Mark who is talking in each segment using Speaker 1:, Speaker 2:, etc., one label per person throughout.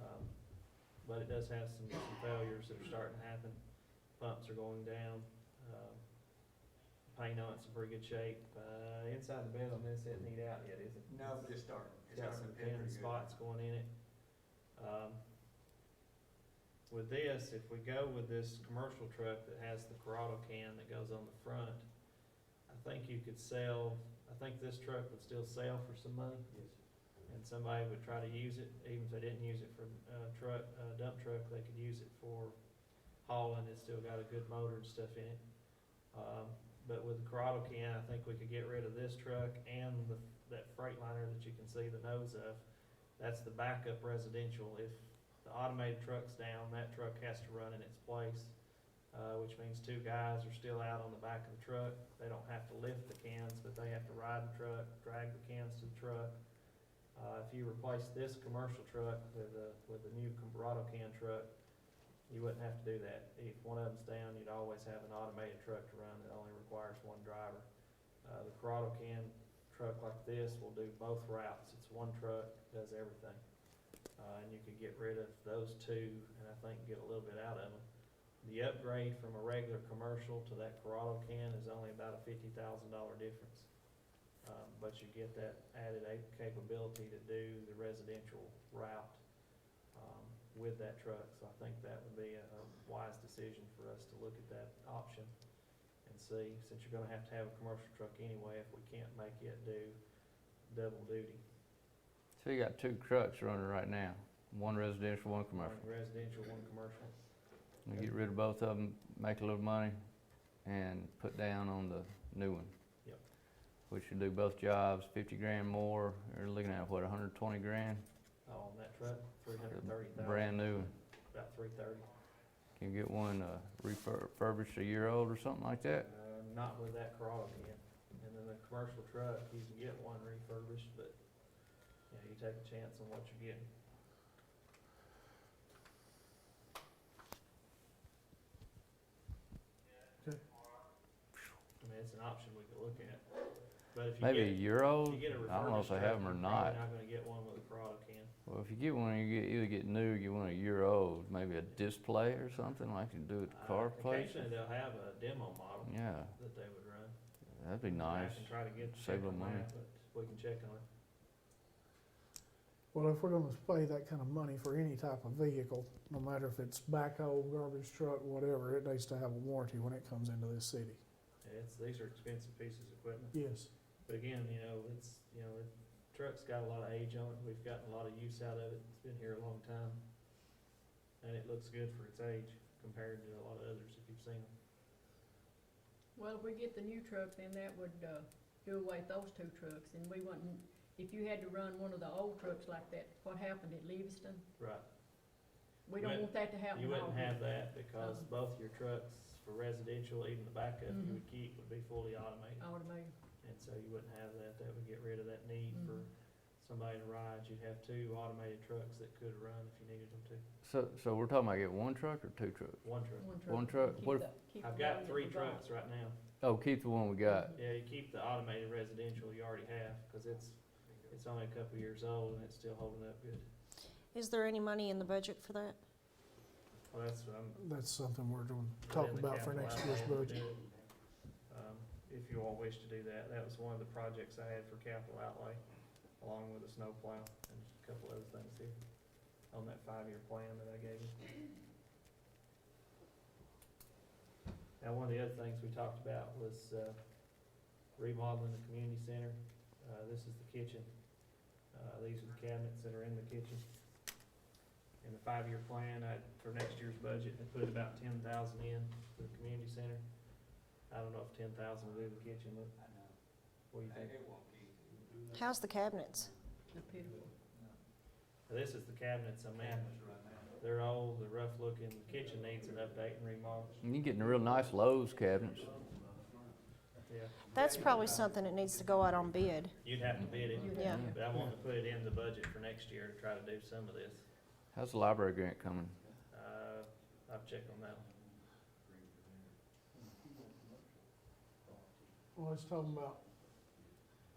Speaker 1: Um, but it does have some, some failures that are starting to happen. Pumps are going down, um, paint on it's in pretty good shape, uh, inside the bed on this isn't heat out yet, is it?
Speaker 2: No, just starting. It's
Speaker 1: It's got
Speaker 2: starting
Speaker 1: some
Speaker 2: to pin
Speaker 1: pin
Speaker 2: pretty good.
Speaker 1: spots going in it. Um, With this, if we go with this commercial truck that has the Corrado can that goes on the front, I think you could sell, I think this truck would still sell for some money.
Speaker 3: Yes.
Speaker 1: And somebody would try to use it, even if they didn't use it for, uh, truck, uh, dump truck, they could use it for hauling, it's still got a good motor and stuff in it. Um, but with the Corrado can, I think we could get rid of this truck and the, that Freightliner that you can see the nose of. That's the backup residential, if the automated truck's down, that truck has to run in its place. Uh, which means two guys are still out on the back of the truck, they don't have to lift the cans, but they have to ride the truck, drag the cans to the truck. Uh, if you replace this commercial truck with a, with a new Comparado can truck, you wouldn't have to do that. If one of them's down, you'd always have an automated truck to run that only requires one driver. Uh, the Corrado can truck like this will do both routes. It's one truck, does everything. Uh, and you could get rid of those two and I think get a little bit out of them. The upgrade from a regular commercial to that Corrado can is only about a fifty thousand dollar difference. Um, but you get that added a- capability to do the residential route, um, with that truck. So I think that would be a a wise decision for us to look at that option and see, since you're gonna have to have a commercial truck anyway, if we can't make it do double duty.
Speaker 4: So you got two trucks running right now, one residential, one commercial.
Speaker 1: One residential, one commercial.
Speaker 4: You get rid of both of them, make a little money, and put down on the new one.
Speaker 1: Yep.
Speaker 4: Which should do both jobs, fifty grand more, you're looking at what, hundred twenty grand?
Speaker 1: Oh, on that truck, three
Speaker 4: for
Speaker 1: hundred
Speaker 4: the
Speaker 1: thirty thousand,
Speaker 4: Brand new one.
Speaker 1: about three thirty.
Speaker 4: Can you get one uh, refurbished a year old or something like
Speaker 1: Uh,
Speaker 4: that?
Speaker 1: not with that Corolla again. And then the commercial truck, you can get one refurbished, but, you know, you take a chance on what you're getting. I
Speaker 3: Okay.
Speaker 1: mean, it's an option we could look at, but if you get.
Speaker 4: Maybe a year
Speaker 1: if
Speaker 4: old?
Speaker 1: you
Speaker 4: I
Speaker 1: get a
Speaker 4: don't know
Speaker 1: refurbished
Speaker 4: if they
Speaker 1: truck,
Speaker 4: have them or
Speaker 1: you're probably
Speaker 4: not.
Speaker 1: Not gonna get one with a Corolla can.
Speaker 4: Well, if you get one, you get, either get new, or get one a year old, maybe a display or something like you do at the
Speaker 1: Uh,
Speaker 4: car place.
Speaker 1: Occasionally, they'll have a demo model
Speaker 4: Yeah,
Speaker 1: that they would run.
Speaker 4: that'd be
Speaker 1: And I
Speaker 4: nice.
Speaker 1: can try to get,
Speaker 4: Save
Speaker 1: check
Speaker 4: a
Speaker 1: on
Speaker 4: little money.
Speaker 1: that, but we can check on it.
Speaker 3: Well, if we're gonna pay that kind of money for any type of vehicle, no matter if it's backhoe, garbage truck, whatever, it needs to have a warranty when it comes into this city.
Speaker 1: It's, these are expensive pieces of equipment.
Speaker 3: Yes.
Speaker 1: But again, you know, it's, you know, the truck's got a lot of age on it, we've gotten a lot of use out of it, it's been here a long time. And it looks good for its age compared to a lot of others if you've seen them.
Speaker 5: Well, if we get the new truck, then that would, uh, do away with those two trucks, and we wouldn't, if you had to run one of the old trucks like that, what happened at Livingston?
Speaker 1: Right.
Speaker 5: We
Speaker 1: Right.
Speaker 5: don't want that to happen.
Speaker 1: You
Speaker 5: at all.
Speaker 1: wouldn't have that because
Speaker 5: Um.
Speaker 1: both your trucks for residential, even the backup you
Speaker 5: Mhm.
Speaker 1: would keep would be fully automated.
Speaker 5: Automated,
Speaker 1: And so you wouldn't have that, that would get rid of that need for
Speaker 5: Mhm.
Speaker 1: somebody to ride. You'd have two automated trucks that could run if you needed them to,
Speaker 4: So, so we're talking about get one truck or two trucks?
Speaker 1: one truck.
Speaker 5: one truck.
Speaker 4: One truck.
Speaker 5: Keep
Speaker 4: What
Speaker 5: the- keep
Speaker 1: I've
Speaker 5: the one
Speaker 1: got
Speaker 5: that
Speaker 1: three
Speaker 5: we bought.
Speaker 1: trucks right now.
Speaker 4: Oh, keep the one we got.
Speaker 1: Yeah, you keep the automated residential you already have, cause it's, it's only a couple of years old and it's still holding up good.
Speaker 6: Is there any money in the budget for that?
Speaker 1: Well, that's what I'm.
Speaker 3: That's something we're gonna
Speaker 1: put
Speaker 3: talk
Speaker 1: in the
Speaker 3: about for
Speaker 1: capital
Speaker 3: next
Speaker 1: outlay
Speaker 3: year's
Speaker 1: if we
Speaker 3: budget.
Speaker 1: do it. Um, If you all wish to do that, that was one of the projects I had for capital outlay, along with a snowplow and a couple other things here on that five-year plan that I gave you. Now, one of the other things we talked about was, uh, remodeling the community center. Uh, this is the kitchen. Uh, these are the cabinets that are in the kitchen. In the five-year plan, I, for next year's budget, I put about ten thousand in for the community center. I don't know if ten thousand will do the kitchen, but
Speaker 2: I know.
Speaker 1: what do you think?
Speaker 2: It it won't be.
Speaker 6: How's the cabinets?
Speaker 5: The pitiful.
Speaker 1: Now, This is the cabinets I'm in.
Speaker 2: Cameras right now.
Speaker 1: They're old, they're rough looking, the kitchen needs an update and remodel.
Speaker 4: And You're getting real nice Lowe's cabinets.
Speaker 1: Yeah.
Speaker 6: That's probably something that needs to go out on bid.
Speaker 1: You'd have to bid it,
Speaker 5: You'd
Speaker 6: Yeah.
Speaker 5: have to-
Speaker 1: but I want to put it in the budget for next year to try to do some of this.
Speaker 4: How's the library grant coming?
Speaker 1: Uh, I've checked on that one.
Speaker 3: Well, it's talking about,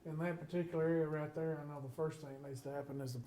Speaker 3: in that particular area right there, I know the first thing that needs to happen is the